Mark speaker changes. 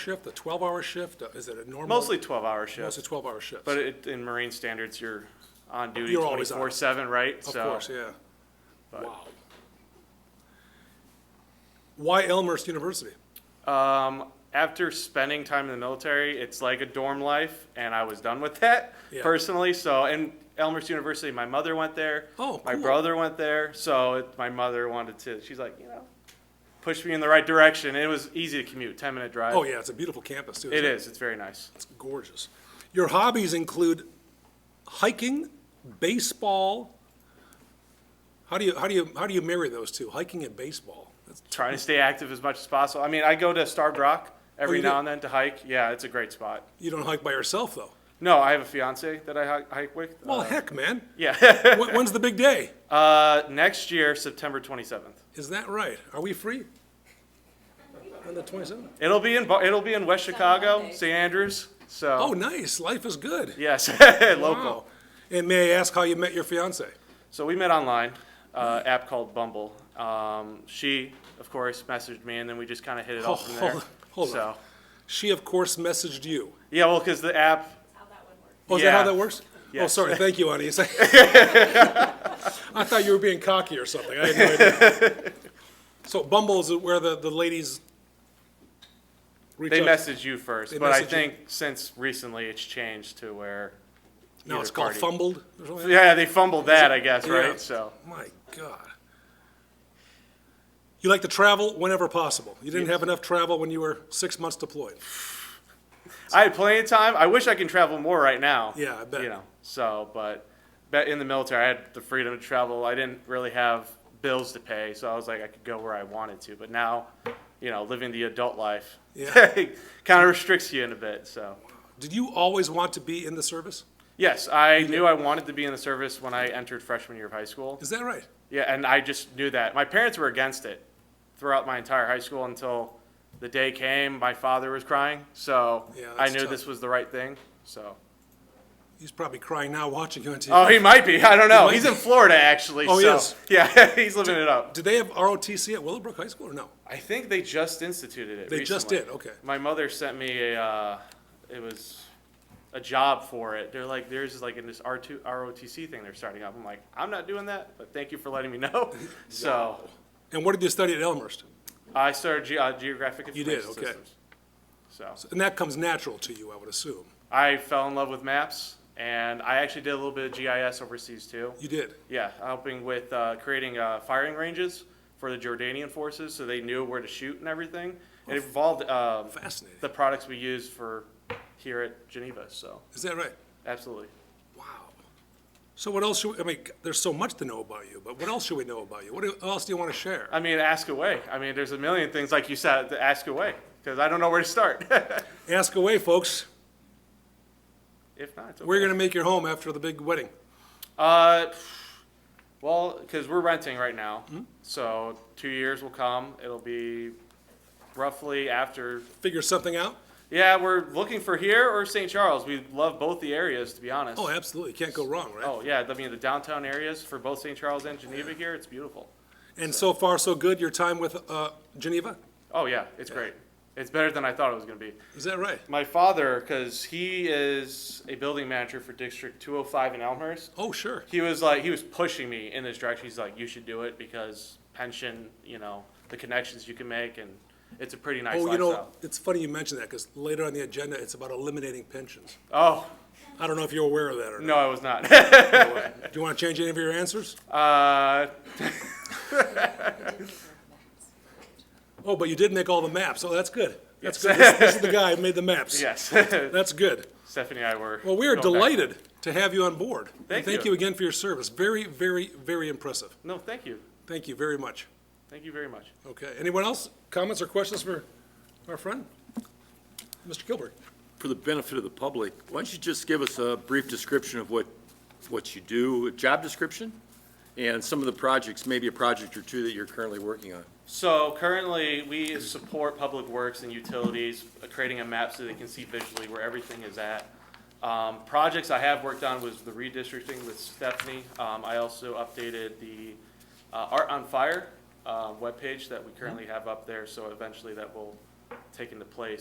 Speaker 1: shift, a 12-hour shift? Is it a normal?
Speaker 2: Mostly twelve-hour
Speaker 1: Mostly
Speaker 2: shifts,
Speaker 1: 12-hour shifts?
Speaker 2: but it, in Marine standards, you're on duty
Speaker 1: You're always on.
Speaker 2: twenty-four-seven, right?
Speaker 1: Of
Speaker 2: So-
Speaker 1: course, yeah. Wow. Why Elmhurst University?
Speaker 2: Um, after spending time in the military, it's like a dorm life, and I was done with that
Speaker 1: Yeah.
Speaker 2: personally. So, and Elmhurst University, my mother went there.
Speaker 1: Oh,
Speaker 2: my
Speaker 1: cool.
Speaker 2: brother went there. So it, my mother wanted to. She's like, you know, push me in the right direction. It was easy to commute, ten minute drive.
Speaker 1: Oh, yeah, it's a beautiful campus, too.
Speaker 2: it
Speaker 1: isn't
Speaker 2: is. It's very nice.
Speaker 1: It's gorgeous. Your hobbies include hiking, baseball. How do you, how do you, how do you marry those two, hiking and baseball? That's-
Speaker 2: Trying to stay active as much as possible. I mean, I go to Starved Rock
Speaker 1: Oh,
Speaker 2: every
Speaker 1: you do?
Speaker 2: now and then to hike. Yeah, it's a great spot.
Speaker 1: You don't hike by yourself, though.
Speaker 2: No, I have a fiance that I hi- hike with.
Speaker 1: Well,
Speaker 2: Uh,
Speaker 1: heck, man.
Speaker 2: yeah.
Speaker 1: When- When's the big day?
Speaker 2: uh, next year, September twenty seventh.
Speaker 1: Is that right? Are we free? On the 27th?
Speaker 2: It'll be in Bo- it'll be in West Chicago,
Speaker 3: Monday.
Speaker 2: St. Andrews. So
Speaker 1: Oh, nice. Life is good.
Speaker 2: yes, local.
Speaker 1: Wow. And may I ask how you met your fiance?
Speaker 2: So we met online, uh, app called Bumble. Um, she, of course, messaged me, and then we just kind of hit it off from there.
Speaker 1: Hold- hold on.
Speaker 2: so
Speaker 1: She, of course, messaged you.
Speaker 2: yeah, well, because the app.
Speaker 3: how that one works.
Speaker 1: Oh, is that how
Speaker 2: Yeah.
Speaker 1: that works? Oh,
Speaker 2: Yes.
Speaker 1: sorry. Thank you, Ani. It's like- I thought you were being cocky or something. I had no idea. So Bumble is where the, the ladies reach
Speaker 2: They
Speaker 1: out.
Speaker 2: message you first,
Speaker 1: They
Speaker 2: but I
Speaker 1: message you.
Speaker 2: think since recently it's changed to where.
Speaker 1: Now
Speaker 2: either
Speaker 1: it's called
Speaker 2: party-
Speaker 1: Fumbled or something?
Speaker 2: Yeah, they fumbled that, I guess,
Speaker 1: Yeah.
Speaker 2: right? So
Speaker 1: My God. You like to travel whenever possible. You didn't have enough travel when you were six months deployed.
Speaker 2: I had plenty of time. I wish I can travel more right now.
Speaker 1: Yeah, I bet.
Speaker 2: You know, so but, but in the military, I had the freedom to travel. I didn't really have bills to pay, so I was like, I could go where I wanted to. But now, you know, living the adult life
Speaker 1: Yeah.
Speaker 2: kind of restricts you in a bit. So
Speaker 1: Did you always want to be in the service?
Speaker 2: yes, I knew I wanted to be in the service when I entered freshman year of high school.
Speaker 1: Is that right?
Speaker 2: Yeah, and I just knew that. My parents were against it throughout my entire high school until the day came. My father was crying, so
Speaker 1: Yeah,
Speaker 2: I
Speaker 1: that's
Speaker 2: knew
Speaker 1: tough.
Speaker 2: this was the right thing. So.
Speaker 1: He's probably crying now watching you on TV.
Speaker 2: Oh, he might be. I don't know.
Speaker 1: might
Speaker 2: He's
Speaker 1: be.
Speaker 2: in Florida, actually.
Speaker 1: Oh, he
Speaker 2: so-
Speaker 1: is.
Speaker 2: Yeah, he's living it up.
Speaker 1: Did they have ROTC at Willowbrook High School or no?
Speaker 2: I think they just instituted it.
Speaker 1: They just did,
Speaker 2: recently.
Speaker 1: okay.
Speaker 2: My mother sent me a. Uh, it was a job for it. They're like, there's like in this R2 ROTC thing they're starting up. I'm like, I'm not doing that, but thank you for letting me know. So
Speaker 1: And what did you study at Elmhurst?
Speaker 2: I started ge- uh, geographic
Speaker 1: You did,
Speaker 2: information
Speaker 1: okay.
Speaker 2: systems. So
Speaker 1: And that comes natural to you, I would assume.
Speaker 2: I fell in love with maps, and I actually did a little bit of GIS overseas too.
Speaker 1: You did.
Speaker 2: Yeah, helping with uh, creating uh, firing ranges for the Jordanian forces, so they knew where to shoot and everything. It involved um,
Speaker 1: Fascinating.
Speaker 2: the products we use for here at Geneva. So
Speaker 1: Is that right?
Speaker 2: absolutely.
Speaker 1: Wow. So what else should we, I mean, there's so much to know about you, but what else should we know about you? What do- else do you want to share?
Speaker 2: I mean, ask away. I mean, there's a million things like you said to ask away because I don't know where to start.
Speaker 1: Ask away, folks.
Speaker 2: if not, it's okay.
Speaker 1: Where you going to make your home after the big wedding?
Speaker 2: Uh, well, because we're renting right now,
Speaker 1: Mm-hmm.
Speaker 2: so two years will come. It'll be roughly after
Speaker 1: Figure something out?
Speaker 2: Yeah, we're looking for here or St. Charles. We love both the areas, to be honest.
Speaker 1: Oh, absolutely. Can't go wrong, right?
Speaker 2: Oh, yeah, I mean the downtown areas for both St. Charles and Geneva here, it's beautiful.
Speaker 1: And so far, so good, your time with uh, Geneva?
Speaker 2: Oh yeah, it's great. It's better than I thought it was going to be.
Speaker 1: Is that right?
Speaker 2: My father, because he is a building manager for District 205 in Elmhurst,
Speaker 1: Oh, sure.
Speaker 2: he was like he was pushing me in this direction. He's like, you should do it because pension, you know, the connections you can make, and it's a pretty nice
Speaker 1: Oh, you
Speaker 2: lifestyle.
Speaker 1: know, it's funny you mentioned that because later on the agenda, it's about eliminating pensions.
Speaker 2: oh
Speaker 1: I don't know if you're aware of that or not.
Speaker 2: no, I was not.
Speaker 1: Do you want to change any of your answers?
Speaker 2: uh,
Speaker 1: Oh, but you did make all the maps. Oh, that's good. That's good. This, this is the guy who made the maps.
Speaker 2: yes,
Speaker 1: That's good.
Speaker 2: Stephanie and I were.
Speaker 1: Well, we are
Speaker 2: going back-
Speaker 1: delighted to have you on board. And
Speaker 2: Thank
Speaker 1: Thank
Speaker 2: you.
Speaker 1: you again for your service. Very, very, very impressive.
Speaker 2: No, thank you.
Speaker 1: Thank you very much.
Speaker 2: Thank you very much.
Speaker 1: Okay. Anyone else? Comments or questions for our friend? Mr. Gilbert?
Speaker 4: for the benefit of the public, why don't you just give us a brief description of what, what you do, a job description? And some of the projects, maybe a project or two that you're currently working on.
Speaker 2: So currently, we support public works and utilities, uh, creating a map so they can see visually where everything is at. Um, projects I have worked on was the redistricting with Stephanie. Um, I also updated the, uh, Art on Fire, uh, webpage that we currently have up there, so eventually that will take into place.